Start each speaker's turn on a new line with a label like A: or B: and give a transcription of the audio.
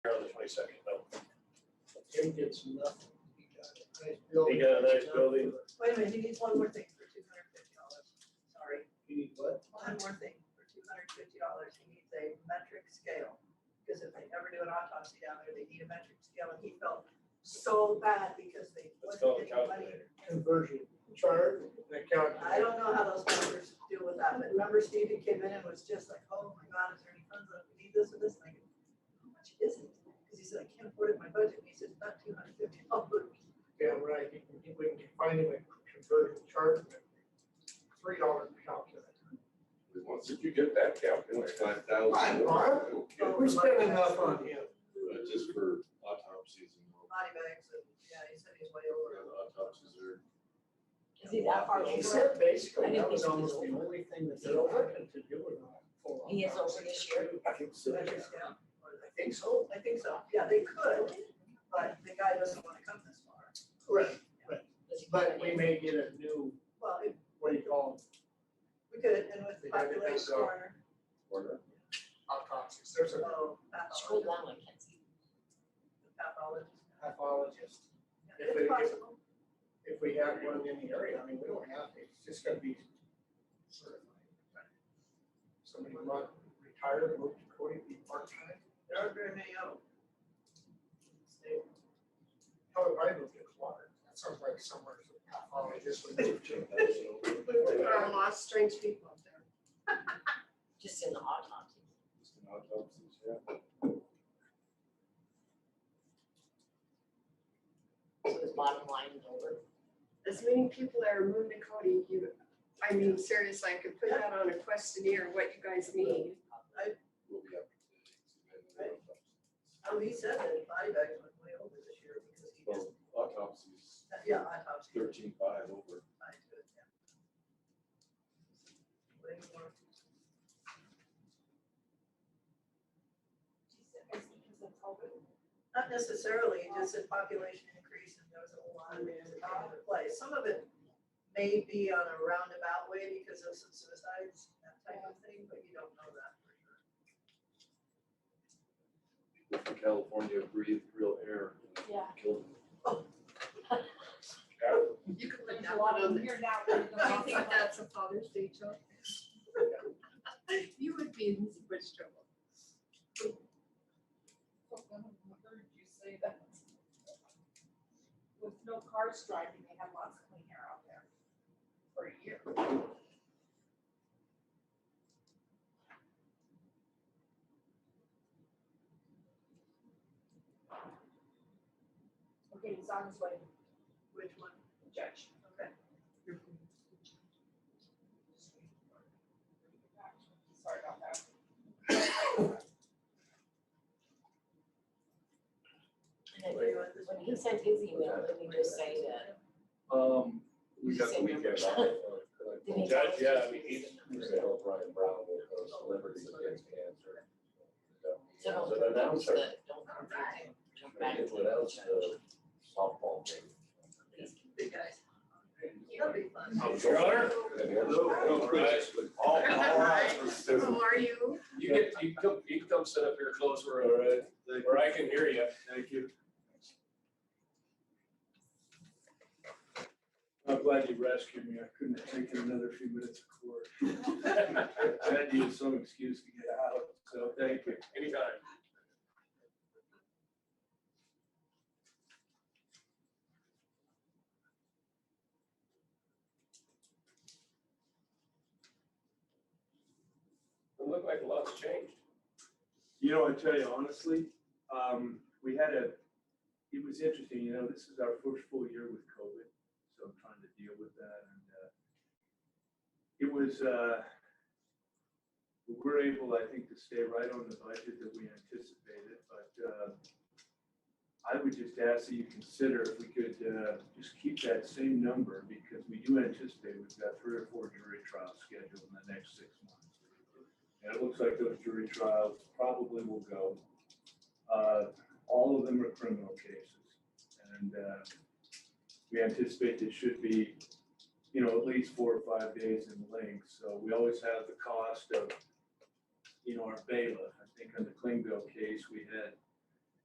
A: section, no.
B: Jim gets nothing. He got a nice
A: He got a nice building.
C: Wait a minute, he needs one more thing for two hundred fifty dollars, sorry,
B: He needs what?
C: one more thing for two hundred fifty dollars, he needs a metric scale. Because if they never do an autopsy down there, they need a metric scale, and he felt so bad because they
A: Let's
C: wasn't
A: call the
C: getting money.
A: calculator.
B: Conversion chart, that calculator.
C: I don't know how those numbers deal with that, but remember Steve, he came in and was just like, oh my God, is there any funds left, we need this or this, and I go, how much is it? Because he said, I can't afford it in my budget, and he said, not two hundred fifty dollars.
B: Damn right, you can, we can find him a conversion chart, three dollar calculator.
D: Did you get that calculator? Five thousand.
B: Right, Mark. We're spending enough on him.
D: Just for autopsies and all,
C: Body bags, and, yeah, he said he's way
D: or
C: over.
D: autopsies are.
E: Is he that far
B: He
E: over?
B: said basically
E: I
B: that
E: think
B: was
E: he's-
B: almost the only thing that they're looking to do with that. full
E: He is over
B: autopsy.
E: this year?
B: I think so. I
C: Metric scale, or the-
B: think so.
C: I think so, yeah, they could, but the guy doesn't wanna come this far.
B: Correct.
E: Does he
B: But
E: get
B: we
E: it?
B: may get a new,
C: Well, if
B: what do you call them,
C: we could, and with the population corner,
B: autopsies. There's a
C: oh,
E: Scroll
C: pathologist,
E: down, Mackenzie.
C: pathologist.
B: pathologist.
C: Yeah,
B: If it-
C: It's possible,
B: If we have one in the area, I mean, we don't have, to. it's just gonna be certified. Somebody might retire, move to Cody, be part-time.
C: there aren't very many of them.
B: They- Probably I moved to Clark. That sounds like somewhere a pathologist would move to.
F: There are lots of strange people up there.
E: Just in the autopsy.
D: Just an autopsies, yeah.
E: So his bottom line is over.
F: As many people that are moving to Cody, you, I mean, seriously, I could put that on a questionnaire, what you guys need.
D: We'll be up to date.
C: Oh, he said that body bags went way over this year because he just,
D: Well, autopsies,
C: yeah, autopsy.
D: thirteen five over.
C: I do it, yeah. Way more. Not necessarily, just a population increase and there was a lot of things out of place. Some of it may be on a roundabout way because of some suicides, that type of thing, but you don't know that for sure.
D: California breathed real air.
G: Yeah.
D: Killed
F: You could put
G: There's
F: that
G: a lot
F: one
G: of
F: on
G: them
F: there.
G: here now.
F: Do you think that's a Father's Day joke? You would be in so much trouble.
G: Heard you say that. With no cars driving, they have lots of clean air out there for a year. Okay, he's on his way,
C: Which one?
G: judge.
C: Okay.
G: Sorry about that.
E: And then when he sent his email, didn't he just say that?
D: Um, we got the weekend off.
E: Did he tell
A: Judge,
E: us?
A: yeah, I mean, he's,
D: Brian Brown will go celebrities against cancer.
E: So
D: So
E: don't,
D: then that was our-
E: the- don't confuse it, jump back to
D: What else, uh, the
E: the
D: softball game?
E: judge.
C: Big guys. That'll be fun.
A: Your Honor?
D: Hello.
A: all, all eyes were
F: How
D: Hello.
F: are you?
A: You get, you can come, you can come sit up here closer, all right, where I can hear you.
D: Thank you.
H: I'm glad you rescued me. I couldn't take another few minutes of court. I had to use some excuse to get out, so thank you.
A: Anytime. It looked like a lot's changed.
H: You know, I tell you honestly, um, we had a, it was interesting, you know, this is our first full year with COVID, so I'm trying to deal with that and, uh, it was, uh, we were able, I think, to stay right on the budget that we anticipated, but, uh, I would just ask that you consider if we could, uh, just keep that same number because we do anticipate we've got three or four jury trials scheduled in the next six months. And it looks like those jury trials probably will go. Uh, All of them are criminal cases. And uh, we anticipate there should be, you know, at least four or five days in length. So we always have the cost of, you know, our bailiff. I think on the Klingbeil case, we had